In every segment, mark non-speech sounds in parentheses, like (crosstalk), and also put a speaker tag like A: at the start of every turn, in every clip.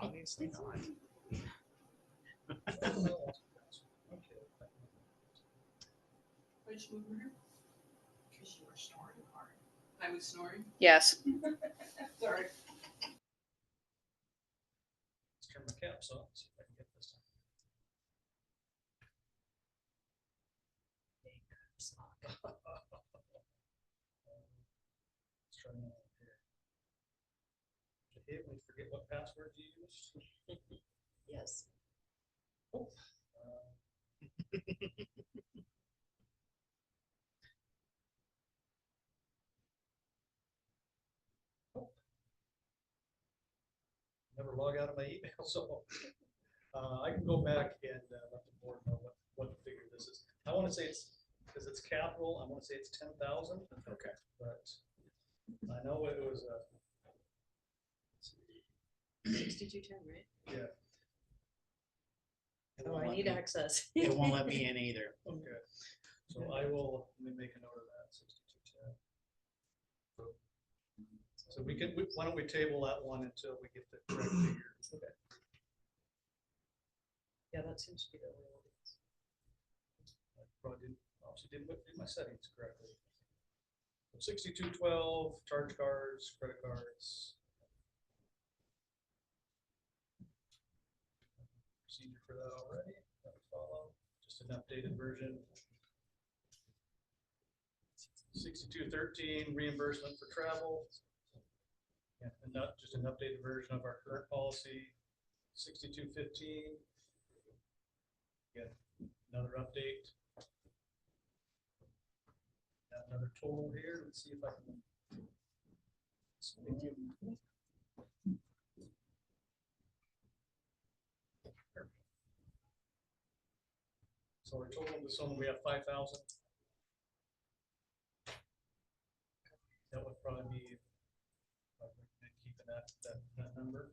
A: obviously not.
B: Which one were you? Because you were snoring hard. I was snoring?
C: Yes.
B: Sorry.
A: Let's turn my caps off, see if I can get this. Hey, caps lock. Let's try another one here. Did it, we forget what password you used?
B: Yes.
A: Uh, Never log out of my (laughs) email, so uh, I can go back and uh, let the board know what, what figure this is. I want to say it's, because it's capital, I want to say it's ten thousand. Okay. But I know it was, uh,
D: Sixty-two ten, right?
E: It
D: Oh,
E: won't
D: I
E: let
D: need
E: me-
D: access.
E: It won't let me in either.
A: Okay, so I will, let me make a note of that, sixty-two ten. So we can, we- why don't we table that one until we get the correct figure? Okay.
D: Yeah, that seems to be the way it is.
A: Probably didn't, obviously didn't put- do my settings correctly. Sixty-two twelve, charge cards, credit cards. Procedure for that already, that would follow, just an updated version. Sixty-two thirteen, reimbursement for travel. Yeah, and not just an updated version of our current policy, sixty-two fifteen. Again, another update. Got another total here, let's see if I can. Speak to- So our total this one, we have five thousand. That would probably be. uh, Keeping that, that, that number.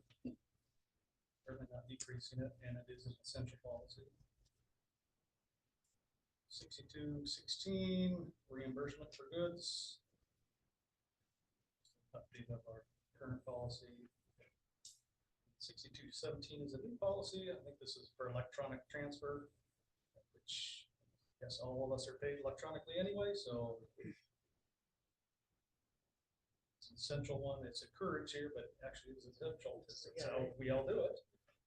A: Certainly not decreasing it, and it is an essential policy. Sixty-two sixteen, reimbursement for goods. Update of our current policy. Sixty-two seventeen is a new policy. I think this is for electronic transfer, which, yes, all of us are paid electronically anyway, so. It's an essential one. It's a courage here, but actually it's essential. It's it's how we all do it.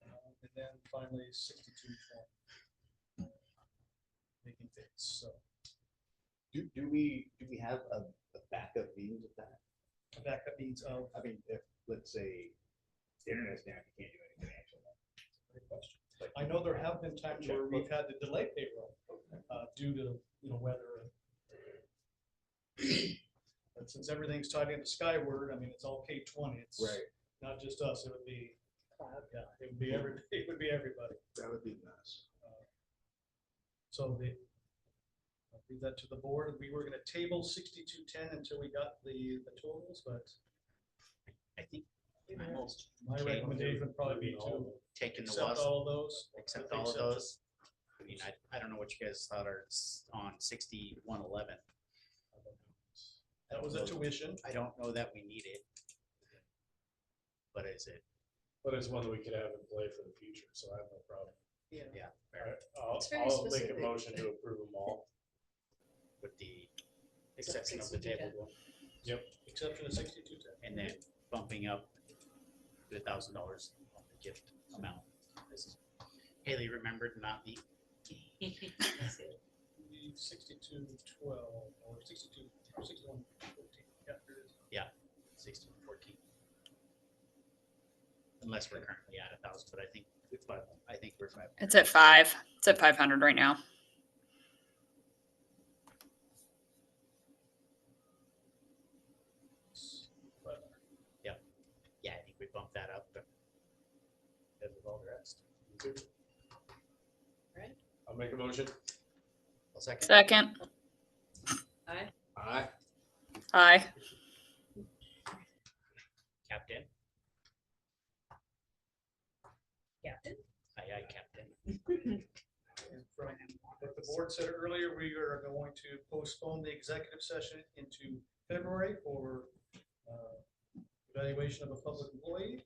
A: Um, And then finally sixty-two twenty making things, so
E: Do, do we, do we have a, a backup means of that?
A: a backup needs of,
E: I mean, if, let's say, the internet's down, you can't do anything actually.
A: great question. I know there have been times where we've had to delay payroll, uh, due to, you know, weather. and- But since everything's tied into Skyward, I mean, it's all K twenty, it's not just us, it would be,
D: Cloud.
A: yeah, it would be every, (laughs) it would be everybody.
E: That would be nice.
A: So the, I'll leave that to the board. We were gonna table sixty-two ten until we got the, the totals, but
E: I think
D: You
E: I'm
D: know,
E: almost
A: my
E: Table.
A: recommendation would probably be to
E: taking the
A: accept
E: loss,
A: all those.
E: except
A: I think
E: all of
A: so.
E: those. I mean, I, I don't know what you guys thought are s- on sixty-one eleven.
A: That was a tuition.
E: I don't know that we need it. But is it,
F: But it's one that we could have in play for the future, so I have no problem.
D: Yeah.
E: yeah,
F: All right,
D: (laughs)
F: I'll,
D: It's very
F: I'll make a
D: specific.
F: motion to approve them all.
E: with the exception of the
D: 62,
E: table one,
A: Exception of sixty-two ten.
E: and then bumping up to a thousand dollars on the gift amount. This is- Haley remembered not the
D: (laughs)
F: (laughs)
D: that's it.
A: Sixty-two twelve, or sixty-two, or sixty-one fourteen. Yeah, there it is.
E: sixteen fourteen. Unless we're currently at a thousand, but I think, it's five- I think we're five.
C: It's at five. It's at 500 right now.
A: But
E: Yeah, I think we bumped that up. but Because of all the rest.
F: I'll make a motion.
E: Well, second.
C: Second.
D: Aye.
F: Aye.
C: Aye.
E: Captain,
D: Captain?
E: aye, aye, Captain.
A: and from what the board said earlier, we are going to postpone the executive session into February for uh, evaluation of a public employee.